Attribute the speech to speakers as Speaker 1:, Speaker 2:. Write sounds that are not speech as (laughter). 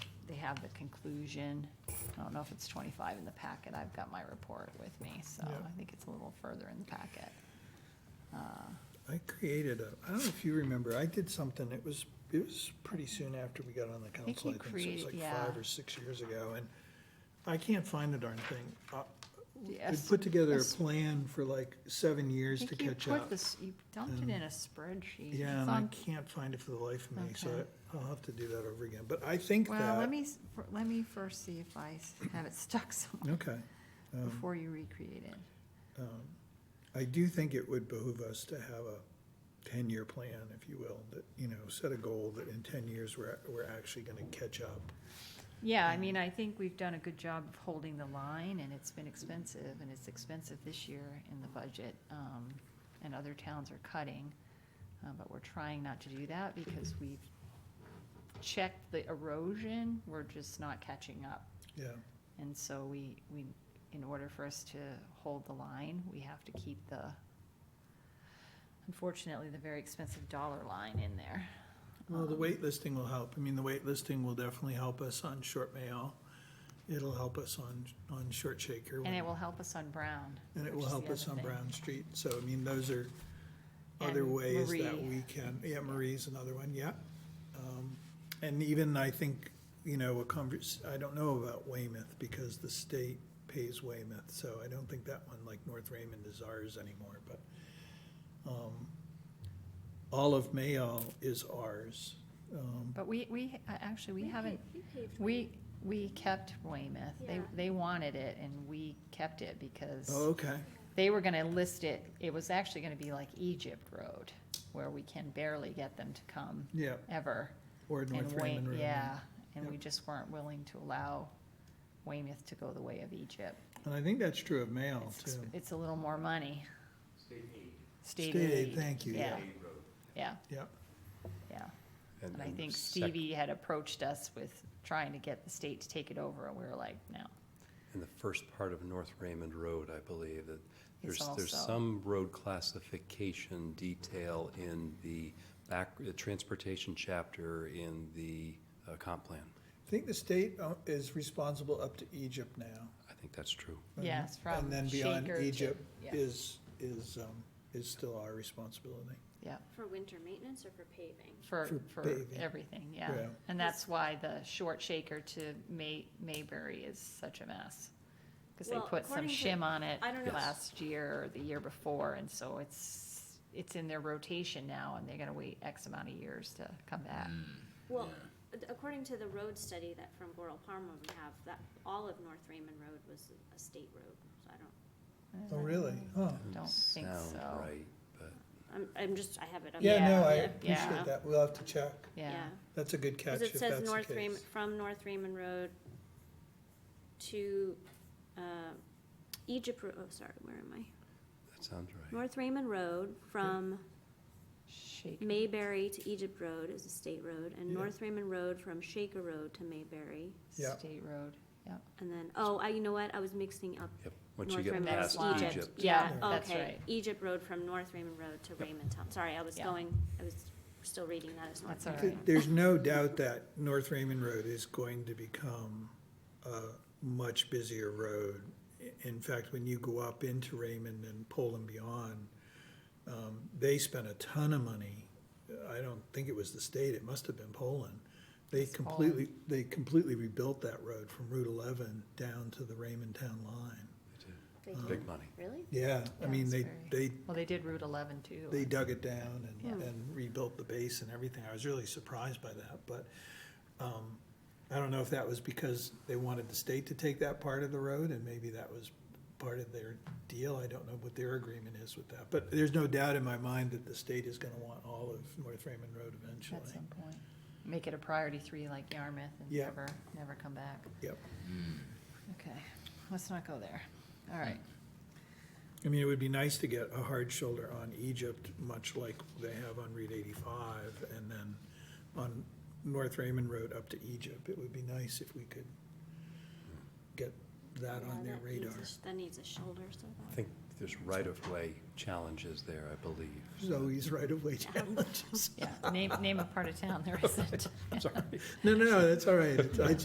Speaker 1: have the conclusion. I don't know if it's 25 in the packet. I've got my report with me, so
Speaker 2: Yeah.
Speaker 1: I think it's a little further in the packet. Uh,
Speaker 2: I created a, I don't know if you remember, I did something, it was, it was pretty soon after we got on the
Speaker 1: think
Speaker 2: council.
Speaker 1: you
Speaker 2: so it was
Speaker 1: created-
Speaker 2: like Five
Speaker 1: yeah.
Speaker 2: or six years ago, and I can't find the darn thing. Uh, I
Speaker 1: Yes.
Speaker 2: put together a
Speaker 1: Yes.
Speaker 2: plan for like seven
Speaker 1: I
Speaker 2: years to
Speaker 1: think you
Speaker 2: catch
Speaker 1: put
Speaker 2: up.
Speaker 1: this, you dumped it in a spreadsheet.
Speaker 2: Yeah,
Speaker 1: It's
Speaker 2: and I
Speaker 1: on-
Speaker 2: can't find it for the life of me, so
Speaker 1: Okay.
Speaker 2: I- I'll have to do that over again, but I think
Speaker 1: Well, let
Speaker 2: that,
Speaker 1: me, s- fir- let me first see if I s- have it stuck somewhere
Speaker 2: okay. Um,
Speaker 1: before you recreate it.
Speaker 2: um, I do think it would behoove us to have a ten-year plan, if you will, that, you know, set a goal that in ten years, we're, we're actually gonna catch up.
Speaker 1: Yeah, I mean, I think we've done a good job of holding the line, and it's been expensive, and it's expensive this year in the budget, um, and other towns are cutting. Uh, but we're trying not to do that because we've checked the erosion, we're just not catching up.
Speaker 2: Yeah,
Speaker 1: And so we, we, in order for us to hold the line, we have to keep the, unfortunately, the very expensive dollar line in there.
Speaker 2: well, the
Speaker 1: Um,
Speaker 2: waitlisting will help. I mean, the waitlisting will definitely help us on short mail. It'll help us on, on short shaker.
Speaker 1: And it
Speaker 2: when-
Speaker 1: will help us on Brown.
Speaker 2: And it
Speaker 1: which
Speaker 2: will
Speaker 1: is the
Speaker 2: help us
Speaker 1: other
Speaker 2: on
Speaker 1: thing.
Speaker 2: Brown Street. So, I mean, those are other
Speaker 1: And
Speaker 2: ways that
Speaker 1: Marie.
Speaker 2: we can, yeah, Marie's another one, yeah. Um, And even, I think, you know, a convers, I don't know about Weymouth because the state pays Weymouth. So I don't think that one, like North Raymond is ours anymore, but um, all of Mayall is ours. Um,
Speaker 1: But we, we, uh, actually, we haven't,
Speaker 3: paved
Speaker 1: we, we kept Weymouth. They,
Speaker 3: Yeah.
Speaker 1: they wanted it and we kept it
Speaker 2: Oh,
Speaker 1: because
Speaker 2: okay,
Speaker 1: they were gonna list it. It was actually gonna be like Egypt Road, where we can barely get them to come
Speaker 2: yeah,
Speaker 1: ever.
Speaker 2: or North
Speaker 1: And Wey-
Speaker 2: Raymond. Road.
Speaker 1: Yeah, and
Speaker 2: Yep.
Speaker 1: we just weren't willing to allow Weymouth to go the way of Egypt.
Speaker 2: And I think that's true of Mayall
Speaker 1: It's,
Speaker 2: Oh, too.
Speaker 1: exp- it's a little more money. State
Speaker 2: State
Speaker 1: aid.
Speaker 2: aid, thank you,
Speaker 1: Yeah, yeah,
Speaker 2: Yep.
Speaker 1: yeah.
Speaker 4: And
Speaker 1: And I
Speaker 4: and
Speaker 1: think
Speaker 4: sec-
Speaker 1: Stevie had approached us with trying to get the state to take it over, and we were like, no.
Speaker 4: And the first part of North Raymond Road, I believe, that
Speaker 1: It's
Speaker 4: there's, there's
Speaker 1: also-
Speaker 4: some road classification detail in the back, the transportation chapter in the uh, comp plan.
Speaker 2: I think the state uh, is responsible up to Egypt now.
Speaker 4: I think that's true.
Speaker 2: And-
Speaker 1: Yes, from
Speaker 2: And then beyond
Speaker 1: Shaker to-
Speaker 2: Egypt
Speaker 1: yeah.
Speaker 2: is, is, um, is still our responsibility.
Speaker 1: Yeah,
Speaker 3: For winter maintenance or for paving?
Speaker 1: for, for
Speaker 2: For paving.
Speaker 1: everything, yeah.
Speaker 2: Yeah.
Speaker 1: And that's why the short shaker to May, Mayberry is such a mess. Because they
Speaker 3: Well,
Speaker 1: put some
Speaker 3: according to-
Speaker 1: shim on it
Speaker 3: I don't know.
Speaker 1: last year or the year before, and so it's, it's in their rotation now, and they're gonna wait X amount of years to come back.
Speaker 2: Mm.
Speaker 3: Well, ad- according to the road study that from Goral Palmer we have, that all of North Raymond Road was a state road, so I don't,
Speaker 2: Oh, really? Huh.
Speaker 1: Don't think
Speaker 4: Sound
Speaker 1: so.
Speaker 4: right, but
Speaker 3: I'm, I'm just, I have it up.
Speaker 2: Yeah, no, I
Speaker 3: Yeah.
Speaker 1: yeah.
Speaker 2: appreciate that. We'll have to check.
Speaker 1: Yeah,
Speaker 2: That's a good catch
Speaker 3: Cause
Speaker 2: if
Speaker 3: it says
Speaker 2: that's the
Speaker 3: North Raymond,
Speaker 2: case.
Speaker 3: from North Raymond Road to, uh, Egypt, Ro- oh, sorry, where am I?
Speaker 4: that sounds right.
Speaker 3: North Raymond Road from
Speaker 1: shaker.
Speaker 3: Mayberry to Egypt Road is a state road, and
Speaker 2: Yeah.
Speaker 3: North Raymond Road from Shaker Road to Mayberry.
Speaker 2: Yeah.
Speaker 1: State road, yeah.
Speaker 3: And then, oh, I, you know what, I was mixing up
Speaker 4: Yep, once you
Speaker 3: North
Speaker 4: get
Speaker 3: Raymond Road
Speaker 4: past
Speaker 3: to
Speaker 1: Line.
Speaker 4: Egypt.
Speaker 3: Yeah,
Speaker 2: Yeah,
Speaker 1: that's
Speaker 3: okay,
Speaker 1: right.
Speaker 3: Egypt Road from North Raymond Road to
Speaker 4: Yep.
Speaker 3: Raymond Town, sorry, I was
Speaker 1: Yeah.
Speaker 3: going, I was still reading that as North.
Speaker 1: That's all
Speaker 3: Raymond.
Speaker 1: right.
Speaker 2: There's no doubt that North Raymond Road is going to become a much busier road. I- In fact, when you go up into Raymond and Poland beyond, um, they spent a ton of money. I don't think it was the state, it must have been Poland. They
Speaker 1: It's Poland.
Speaker 2: completely, they completely rebuilt that road from Route 11 down to the Raymond Town line.
Speaker 3: They
Speaker 4: Big
Speaker 3: did.
Speaker 4: money.
Speaker 3: Really?
Speaker 2: Yeah, I mean,
Speaker 1: That's
Speaker 2: they,
Speaker 1: very-
Speaker 2: they
Speaker 1: Well, they did Route eleven too.
Speaker 2: they dug it down and,
Speaker 1: Yeah.
Speaker 2: and rebuilt the base and everything. I was really surprised by that, but, um, I don't know if that was because they wanted the state to take that part of the road and maybe that was part of their deal. I don't know what their agreement is with that, but there's no doubt in my mind that the state is gonna want all of North Raymond Road eventually.
Speaker 1: At some point. Make it a priority three like Yarmouth and
Speaker 2: Yeah.
Speaker 1: never, never come back.
Speaker 2: Yep.
Speaker 1: Okay, let's not go there. All right.
Speaker 2: I mean, it would be nice to get a hard shoulder on Egypt, much like they have on Route eighty-five, and then on North Raymond Road up to Egypt. It would be nice if we could get that
Speaker 3: Yeah,
Speaker 2: on their
Speaker 3: that needs a
Speaker 2: radar.
Speaker 3: sh- That needs a shoulder, so.
Speaker 4: I think there's right-of-way challenges there, I believe.
Speaker 2: Zoe's right-of-way challenges.
Speaker 3: (laughs)
Speaker 1: Yeah, name, name a part of town there isn't.
Speaker 4: I'm (laughs) sorry.
Speaker 2: No, no, that's all right. It's- I